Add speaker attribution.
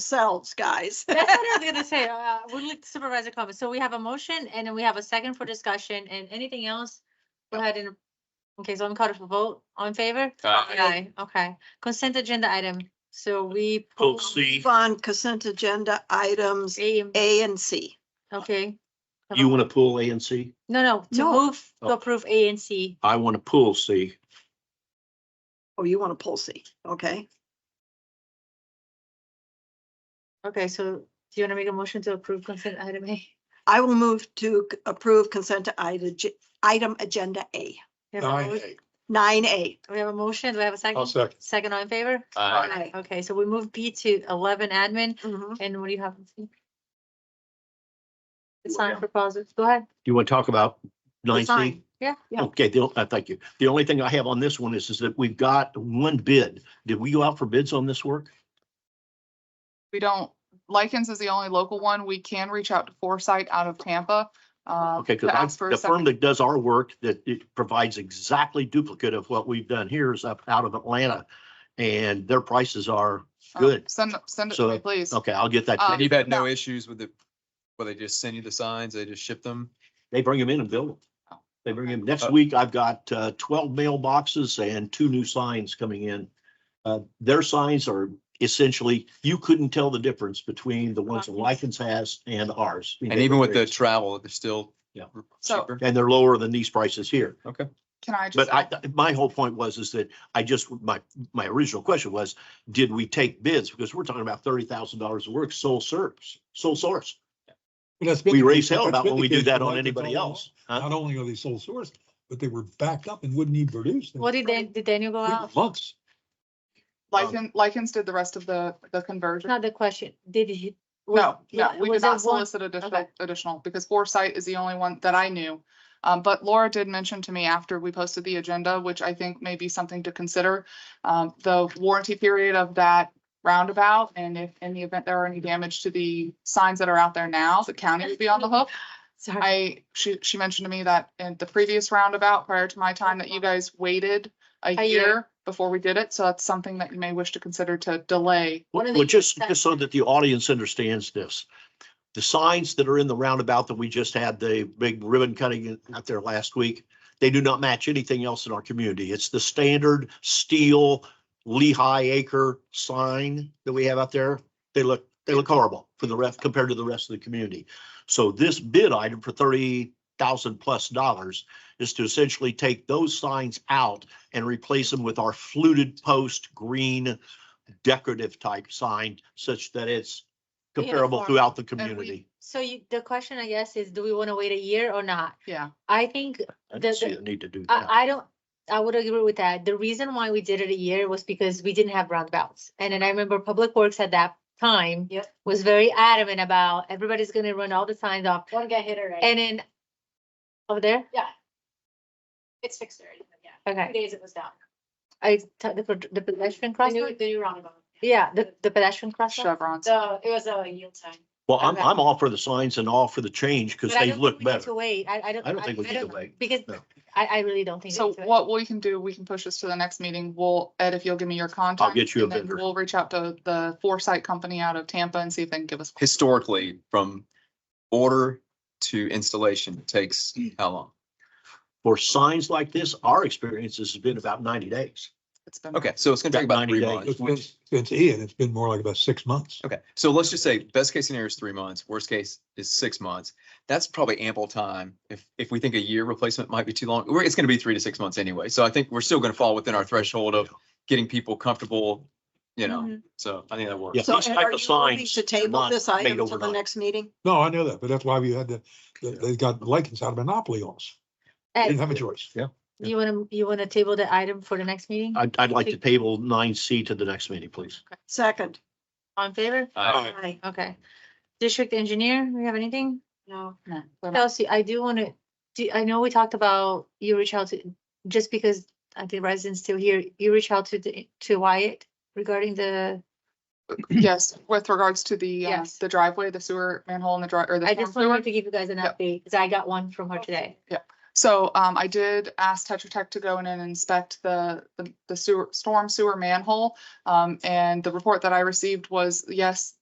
Speaker 1: themselves, guys.
Speaker 2: That's what I was gonna say. Uh, we'd like supervisor comments. So we have a motion and then we have a second for discussion and anything else? Go ahead and, okay, so I'm called for vote. All in favor?
Speaker 3: Aye.
Speaker 2: Okay. Consent agenda item. So we.
Speaker 4: Oh,
Speaker 3: Pull C.
Speaker 1: On consent agenda items
Speaker 2: A,
Speaker 1: A and C.
Speaker 2: okay.
Speaker 3: You want to pull A and C?
Speaker 2: No, no, to
Speaker 1: No.
Speaker 2: move, to
Speaker 3: Oh.
Speaker 2: approve A and C.
Speaker 3: I want to pull C.
Speaker 1: Oh, you want to pull C, okay?
Speaker 2: Okay, so do you want to make a motion to approve consent item A?
Speaker 1: I will move to c- approve consent to ide- item agenda A,
Speaker 2: We have a mo-
Speaker 4: Aye.
Speaker 1: nine A.
Speaker 2: we have a motion. Do we have a second?
Speaker 4: I'll second.
Speaker 2: Second all in favor?
Speaker 3: Aye.
Speaker 1: Aye.
Speaker 2: Okay, so we move B to eleven admin. And what do you have? It's
Speaker 3: Well,
Speaker 2: time for pauses. Go ahead.
Speaker 3: You want to talk about nine C?
Speaker 1: Design.
Speaker 2: Yeah.
Speaker 1: Yeah.
Speaker 3: Okay, the, uh, thank you. The only thing I have on this one is, is that we've got one bid. Did we go out for bids on this work?
Speaker 5: We don't, Lycans is the only local one. We can reach out to Foresight out of Tampa. uh,
Speaker 3: Okay,
Speaker 5: to
Speaker 3: because
Speaker 5: ask for a
Speaker 3: the firm
Speaker 5: second-
Speaker 3: that does our work, that it provides exactly duplicate of what we've done here is up out of Atlanta. And their prices are
Speaker 5: um,
Speaker 3: good.
Speaker 5: Send, send it
Speaker 3: So,
Speaker 5: to me, please.
Speaker 3: Okay, I'll get that.
Speaker 5: Um,
Speaker 3: to
Speaker 6: And
Speaker 3: you.
Speaker 6: you've had no issues with it, where they just send you the signs, they just ship them?
Speaker 3: They bring them in and build them. They bring them. Next
Speaker 6: Uh,
Speaker 3: week, I've got uh, twelve mailboxes and two new signs coming in. Uh, Their signs are essentially, you couldn't tell the difference between the ones that Lycans has and ours.
Speaker 6: And even with the travel, they're still
Speaker 3: Yeah.
Speaker 5: So-
Speaker 6: cheaper?
Speaker 3: And they're lower than these prices here.
Speaker 6: Okay.
Speaker 5: Can I just?
Speaker 3: But I, um, my whole point was, is that I just, my, my original question was, did we take bids? Because we're talking about thirty thousand dollars of work, sole source, sole source. We raise hell about when we do that on anybody else. huh?
Speaker 4: Not only are they sole source, but they were backed up and wouldn't even produce. They
Speaker 2: What
Speaker 4: were
Speaker 2: did Dan, did Daniel go out?
Speaker 4: Months.
Speaker 5: Lycan, Lycans did the rest of the, the
Speaker 2: It's
Speaker 5: conversion.
Speaker 2: Not the question. Did he? was-
Speaker 5: No, no,
Speaker 2: yeah,
Speaker 5: we
Speaker 2: was
Speaker 5: did
Speaker 2: it
Speaker 5: not
Speaker 2: one-
Speaker 5: solicit additional,
Speaker 2: okay.
Speaker 5: additional, because Foresight is the only one that I knew. Um, but Laura did mention to me after we posted the agenda, which I think may be something to consider, um, the warranty period of that roundabout, and if, in the event there are any damage to the signs that are out there now, the county would be on the hook.
Speaker 2: Sorry.
Speaker 5: I, she, she mentioned to me that in the previous roundabout, prior to my time, that you guys waited
Speaker 2: A
Speaker 5: a
Speaker 2: year.
Speaker 5: year before we did it, so that's something that you may wish to consider to delay.
Speaker 2: One of
Speaker 3: Well,
Speaker 2: the-
Speaker 3: just, just so that the audience understands this, the signs that are in the roundabout that we just had the big ribbon cutting out there last week, they do not match anything else in our community. It's the standard steel Lehigh acre sign that we have out there. They look, they look horrible for the rest, compared to the rest of the community. So this bid item for thirty thousand plus dollars is to essentially take those signs out and replace them with our fluted post green decorative type sign such that it's comparable
Speaker 2: Uniform.
Speaker 3: throughout the
Speaker 5: we-
Speaker 3: community.
Speaker 2: So you, the question, I guess, is do we want to wait a year or not?
Speaker 5: Yeah.
Speaker 2: I think,
Speaker 3: I
Speaker 2: the-
Speaker 3: don't see
Speaker 2: the-
Speaker 3: the need to do that.
Speaker 2: I, I don't, I would agree with that. The reason why we did it a year was because we didn't have roundabouts. And then I remember Public Works at that time
Speaker 7: Yep.
Speaker 2: was very adamant about everybody's gonna run all the signs off.
Speaker 7: One got hit already.
Speaker 2: And then over there,
Speaker 7: It's fixed already, but yeah. Two
Speaker 2: okay,
Speaker 7: days it was down.
Speaker 2: I, t- the pro- the pedestrian
Speaker 7: The new,
Speaker 2: crossing,
Speaker 7: the new roundabout.
Speaker 2: yeah, the, the pedestrian crossing.
Speaker 5: chevrons.
Speaker 7: So it was a yield time.
Speaker 3: Well, I'm,
Speaker 2: okay.
Speaker 3: I'm all for the signs and all for the change because
Speaker 2: But I
Speaker 3: they
Speaker 2: don't think
Speaker 3: look
Speaker 2: we need
Speaker 3: better.
Speaker 2: To wait, I, I don't.
Speaker 3: I don't think we need to
Speaker 2: know,
Speaker 3: wait.
Speaker 2: Because
Speaker 3: No.
Speaker 2: I, I really don't think. we
Speaker 5: So
Speaker 2: need to wait.
Speaker 5: what we can do, we can push this to the next meeting. We'll, Ed, if you'll give me your contact.
Speaker 3: get you a
Speaker 5: and then
Speaker 3: vendor.
Speaker 5: We'll reach out to the Foresight Company out of Tampa and see if they can give us.
Speaker 6: Historically, from order to installation, it takes how long?
Speaker 3: For signs like this, our experience has been about ninety days.
Speaker 5: It's been-
Speaker 6: Okay, so it's gonna take
Speaker 3: About
Speaker 6: about three
Speaker 3: 90
Speaker 6: months.
Speaker 4: It's been, since Ian, it's been more like about six months.
Speaker 6: Okay, so let's just say best case scenario is three months, worst case is six months. That's probably ample time. If, if we think a year replacement might be too long, we're- it's gonna be three to six months anyway. So I think we're still gonna fall within our threshold of getting people comfortable, you know,
Speaker 2: Mhm.
Speaker 6: so I think that works.
Speaker 3: Yeah,
Speaker 1: So
Speaker 3: these
Speaker 1: and
Speaker 3: type
Speaker 1: are
Speaker 3: of
Speaker 1: you voting
Speaker 3: signs
Speaker 1: to
Speaker 3: are
Speaker 1: table
Speaker 3: not
Speaker 1: this
Speaker 3: made
Speaker 1: item to the
Speaker 3: overnight.
Speaker 1: next meeting?
Speaker 4: No, I know that, but that's why we had to, they- they got lichens out of monopoly on us. They Didn't
Speaker 2: Ed,
Speaker 4: have a choice.
Speaker 2: do you wanna, you wanna table the item for the next meeting?
Speaker 3: I'd, I'd like to table nine C to the next meeting, please.
Speaker 1: Second.
Speaker 2: On favor?
Speaker 6: Uh,
Speaker 1: Aye.
Speaker 2: Okay. District engineer, do you have anything?
Speaker 7: No.
Speaker 5: No, they're not-
Speaker 2: Kelsey, I do wanna, do, I know we talked about you reach out to, just because I think residents still here, you reach out to the, to Wyatt regarding the,
Speaker 5: Yes, with regards to the, uh,
Speaker 2: Yes.
Speaker 5: the driveway, the sewer manhole and the dri, or the.
Speaker 2: I
Speaker 5: storm
Speaker 2: just
Speaker 5: sewer.
Speaker 2: wanted to give you guys an
Speaker 5: Yep.
Speaker 2: update, cause I got one from her today.
Speaker 5: So um, I did ask Tetra Tech to go in and inspect the, the- the sewer, storm sewer manhole. Um, and the report that I received was, yes,